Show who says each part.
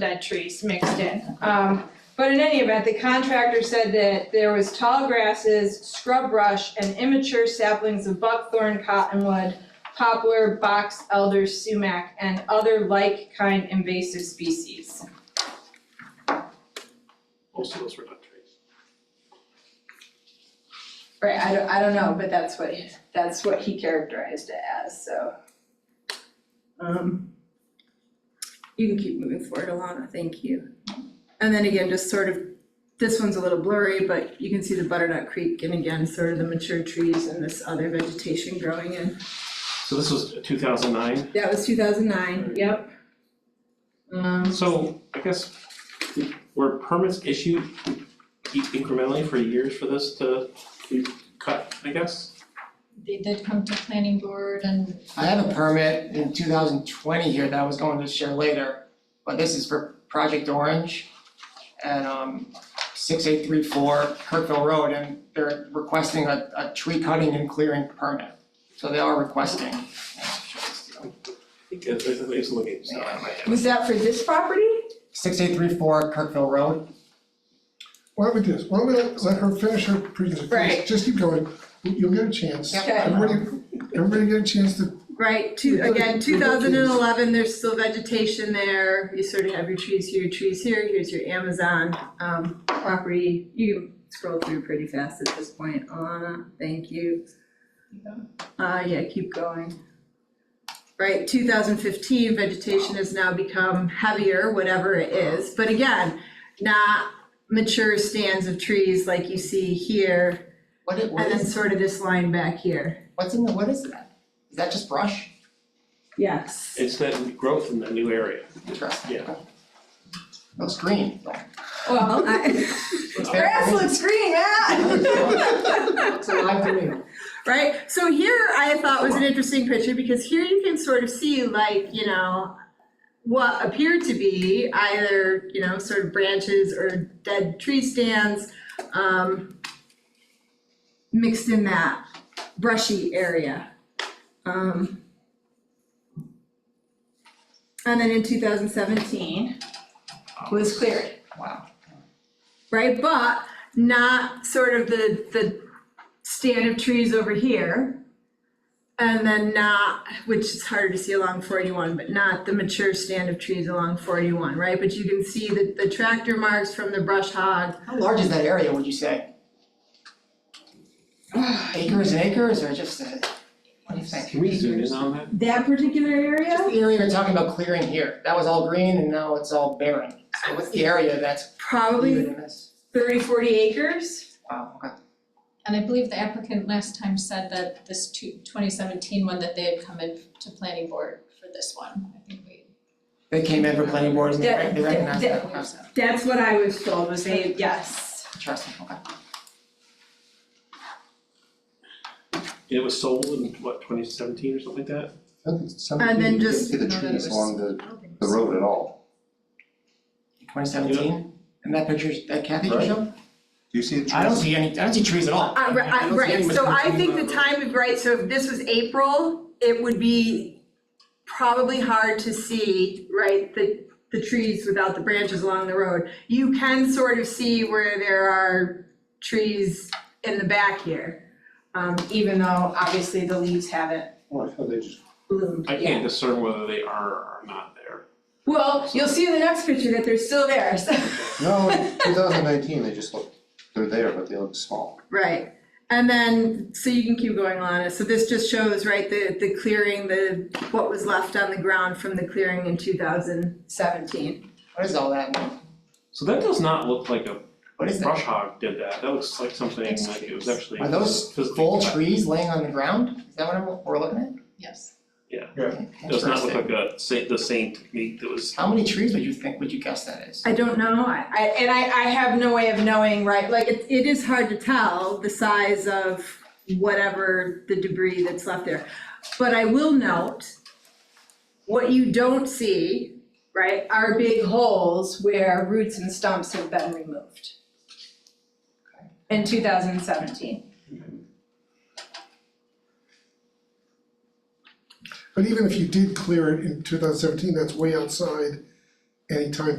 Speaker 1: dead trees mixed in. Um, but in any event, the contractor said that there was tall grasses, scrub brush, and immature saplings of buckthorn, cottonwood, poplar, box elder, sumac, and other like kind invasive species.
Speaker 2: Most of those were not trees.
Speaker 3: Right, I don't, I don't know, but that's what, that's what he characterized it as, so. Um, you can keep moving forward, Alana, thank you. And then again, just sort of, this one's a little blurry, but you can see the butternut creek and again, sort of the mature trees and this other vegetation growing in.
Speaker 2: So this was two thousand nine,
Speaker 3: That was two thousand nine, yep. Um,
Speaker 2: so I guess were permits issued e- incrementally for years for this to be cut, I guess?
Speaker 4: They did come to planning board and
Speaker 5: I have a permit in two thousand twenty here that I was going to share later, but this is for Project Orange at um six eight three four Kirkville Road, and they're requesting a a tree cutting and clearing permit. So they are requesting.
Speaker 2: I think it- it- it's looking, so I might have.
Speaker 3: was that for this property?
Speaker 5: Six eight three four Kirkville Road,
Speaker 6: Why don't we do this, why don't we let let her finish her presentation?
Speaker 3: Right.
Speaker 6: Just keep going, you'll get a chance.
Speaker 5: Yep.
Speaker 3: Okay.
Speaker 6: Everybody, everybody get a chance to
Speaker 3: Right, two,
Speaker 6: We've got-
Speaker 3: again, two
Speaker 6: we've got
Speaker 3: thousand
Speaker 6: trees.
Speaker 3: and eleven, there's still vegetation there, you sort of have your trees here, your trees here, here's your Amazon um property. You can scroll through pretty fast at this point, Alana, thank you. Uh, yeah, keep going. Right, two thousand fifteen, vegetation has now become heavier, whatever it is, but again, not mature stands of trees like you see here,
Speaker 5: what it, what
Speaker 3: and then
Speaker 5: is,
Speaker 3: sort of this line back here,
Speaker 5: what's in the, what is that? Is that just brush?
Speaker 3: yes.
Speaker 2: It's that growth in that new area.
Speaker 5: Interesting.
Speaker 2: Yeah.
Speaker 5: Looks green, though.
Speaker 3: Well, I.
Speaker 5: Looks very
Speaker 3: Grass
Speaker 5: green.
Speaker 3: looks green, Matt.
Speaker 5: Looks alive to me.
Speaker 3: Right, so here I thought was an interesting picture because here you can sort of see like, you know, what appeared to be either, you know, sort of branches or dead tree stands, um, mixed in that brushy area. Um, and then in two thousand seventeen was cleared
Speaker 5: Wow.
Speaker 3: right? But not sort of the, the stand of trees over here. And then not, which is harder to see along forty-one, but not the mature stand of trees along forty-one, right? But you can see the, the tractor marks from the brush hog.
Speaker 5: How large is that area, would you say? Acres and acres, or just, uh, what do you think?
Speaker 2: Can we zoom in on that?
Speaker 3: That particular
Speaker 5: Just
Speaker 3: area?
Speaker 5: the area you're talking about clearing here, that was all green and now it's all barren. So what's the area that's
Speaker 3: Probably
Speaker 5: included in this?
Speaker 1: 30, 40 acres?
Speaker 5: Wow, okay.
Speaker 4: and I believe the applicant last time said that this two, 2017 one that they had come in to planning board for this one. I think we,
Speaker 5: They came in for planning boards and they rec- they
Speaker 1: Yeah,
Speaker 5: recognized
Speaker 1: yeah,
Speaker 5: that,
Speaker 4: yeah.
Speaker 5: okay,
Speaker 3: That's what I was told,
Speaker 1: Was they, yes.
Speaker 5: interesting, okay.
Speaker 2: It was sold in what, twenty seventeen or something like that?
Speaker 3: And
Speaker 7: And
Speaker 3: then
Speaker 7: then just
Speaker 3: just-
Speaker 7: see the
Speaker 4: No, that
Speaker 7: trees
Speaker 4: was-
Speaker 7: along the,
Speaker 4: I don't think
Speaker 7: the
Speaker 4: so.
Speaker 7: road at all.
Speaker 5: Twenty seventeen, and that picture, that Kathy just
Speaker 7: Right.
Speaker 5: showed?
Speaker 7: Do you see the trees?
Speaker 5: I don't see any, I don't see trees at all.
Speaker 3: Uh, ri-
Speaker 5: I
Speaker 3: I-
Speaker 5: don't see
Speaker 3: right,
Speaker 5: any
Speaker 3: so I
Speaker 5: material.
Speaker 3: think the time, is right, so if this was April, it would be probably hard to see, right, the, the trees without the branches along the road. You can sort of see where there are trees in the back here, um, even though obviously the leaves haven't
Speaker 7: Oh, I thought they just.
Speaker 3: bloomed
Speaker 2: I
Speaker 3: yet.
Speaker 2: can't discern whether they are or are not there.
Speaker 3: Well, you'll see in the next picture that they're still there, so.
Speaker 7: No, two thousand nineteen, they just look, they're there, but they look small.
Speaker 3: Right, and then, so you can keep going on, so this just shows, right, the, the clearing, the, what was left on the ground from the clearing in two thousand seventeen.
Speaker 5: What is all that, now?
Speaker 2: So that does not look like a
Speaker 5: what is that?
Speaker 2: brush hog did that. That looks like something
Speaker 4: It's
Speaker 2: like it was
Speaker 4: trees.
Speaker 2: actually.
Speaker 5: Are those
Speaker 2: physically
Speaker 5: full
Speaker 2: cut.
Speaker 5: trees laying on the ground? Is that what I'm, we're looking at?
Speaker 4: Yes.
Speaker 2: Does not look
Speaker 5: Interesting.
Speaker 2: like a sa- the same technique that was
Speaker 5: How many trees would you think, would you guess that is?
Speaker 3: I don't know, I, I, and I, I have no way of knowing, right, like, it, it is hard to tell the size of whatever the debris that's left there. But I will note, what you don't see, right, are big holes where roots and stumps have been removed.
Speaker 1: In 2017.
Speaker 6: But even if you did clear it in two thousand seventeen, that's way outside any time